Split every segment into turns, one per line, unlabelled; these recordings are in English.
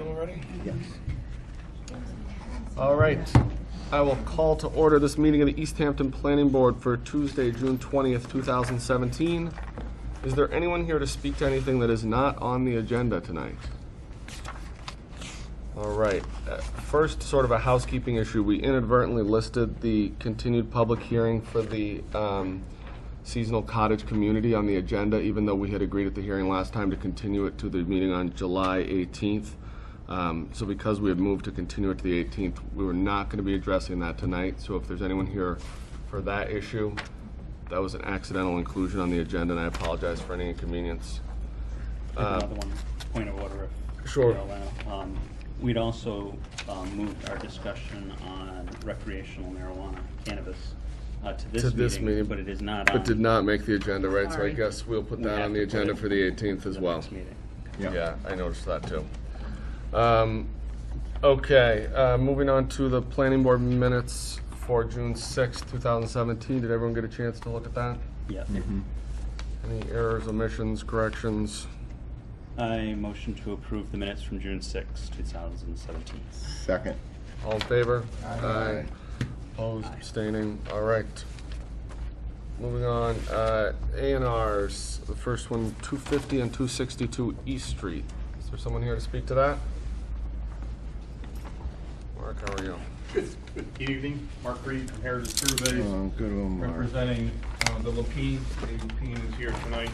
already?
Yes.
All right. I will call to order this meeting of the East Hampton Planning Board for Tuesday, June 20th, 2017. Is there anyone here to speak to anything that is not on the agenda tonight? All right. Uh, First, sort of a housekeeping issue. We inadvertently listed the continued public hearing for the um, seasonal cottage community on the agenda, even though we had agreed at the hearing last time to continue it to the meeting on July 18th. Um, So because we had moved to continue it to the 18th, we were not going to be addressing that tonight. So if there's anyone here for that issue, that was an accidental inclusion on the agenda, and I apologize for any inconvenience.
Another one, point of order. if
Uh, Sure.
you're allowed. Um, We'd also um, moved our discussion on recreational marijuana cannabis uh, to
To
this
this meeting,
meeting, but it is not on.
But did not make the agenda, right? So I
Sorry.
guess we'll put
We
that
have
on the
to put
agenda
it
for the 18th as
the
well.
next meeting.
Yeah, I noticed that too. Um, Okay, uh, moving on to the planning board minutes for June 6th, 2017. Did everyone get a chance to look at that?
Yes.
Any errors, omissions, corrections?
I motion to approve the minutes from June 6, 2017.
Second.
All in favor? Aye. Opposed, abstaining, all right. Moving on, uh, A and Rs, the first one, two fifty and two sixty-two East Street. Is there someone here to speak to that? Mark, how are you?
Good evening, Mark Reed from Heritage Surveys,
Oh, good one, Mark.
representing uh, the Lapine. David Lapine is here tonight.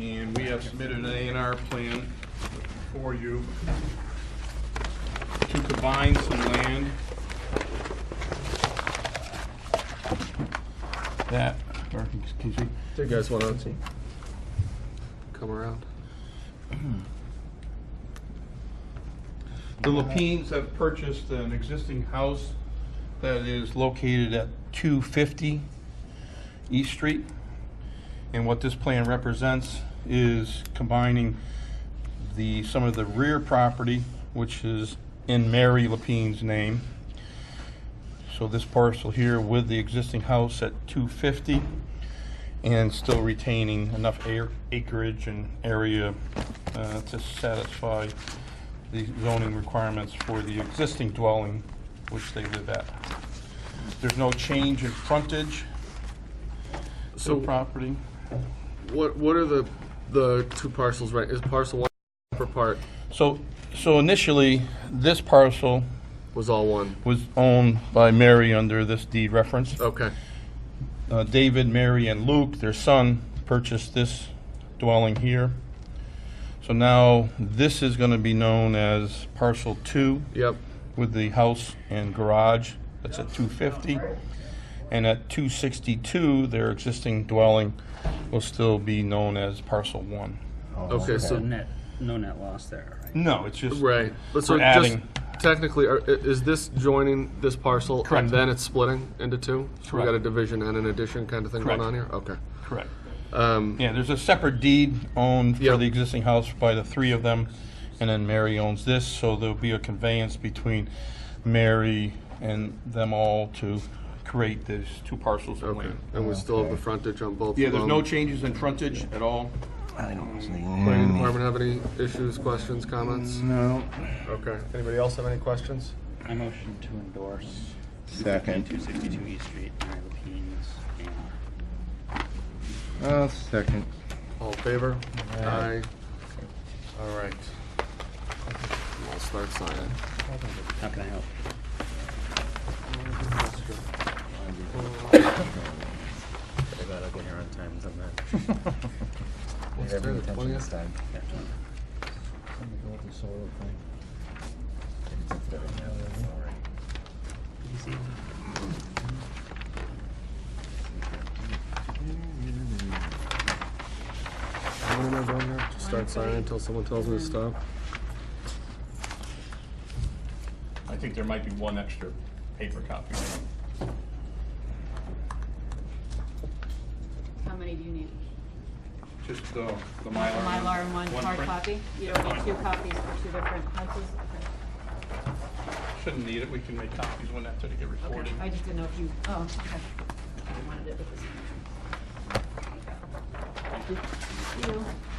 And we have submitted an A and R plan for you to combine some land that, or, excuse me,
Do you guys wanna come around?
The Lapines have purchased an existing house that is located at 250 East Street. And what this plan represents is combining the, some of the rear property, which is in Mary Lapine's name. So this parcel here with the existing house at 250 and still retaining enough air- acreage and area uh, to satisfy the zoning requirements for the existing dwelling which they live at. There's no change in frontage to
So
the property.
what, what are the, the two parcels, right? Is parcel one, upper part
So, so initially, this parcel
was all one?
was owned by Mary under this deed reference.
Okay,
Uh, David, Mary, and Luke, their son, purchased this dwelling here. So now, this is gonna be known as parcel two.
yep,
with the house and garage, that's at 250. And at 262, their existing dwelling will still be known as parcel one.
okay, so.
So net, no net loss there, right?
No, it's just.
Right. But So
We're
just
adding.
technically, are- i- is this joining this parcel?
Correct.
And then it's splitting into two? So we got a
Correct.
division and an addition kind of thing going
Correct.
on here? Okay.
Correct.
Um,
Yeah, there's a separate deed owned
Yeah.
for the existing house by the three of them, and then Mary owns this, so there'll be a conveyance between Mary and them all to create these two parcels of
Okay. Um,
land.
And we still have the frontage on both of them?
Yeah, there's no changes in frontage at all.
Planning department have any issues, questions, comments?
Mm. No.
Okay. Anybody else have any questions?
I motion to endorse
Second.
262 East Street, Mary Lapine's A&R.
Uh, second.
All in favor? Aye. All right. I'll start signing.
How can I help?
I got up in here on time than that.
What's today, the 20th?
Easy.
What am I doing here? Just Start signing until someone tells me to stop?
I think there might be one extra paper copy.
How many do you need?
Just the the Mylar.
Mylar and one hard
print.
copy? You don't need two copies for two different houses?
Shouldn't need it, we can make copies when that's gonna get
Okay.
recorded.
Okay, I just didn't know if you, oh, okay. I wanted it with this. one. Thank you.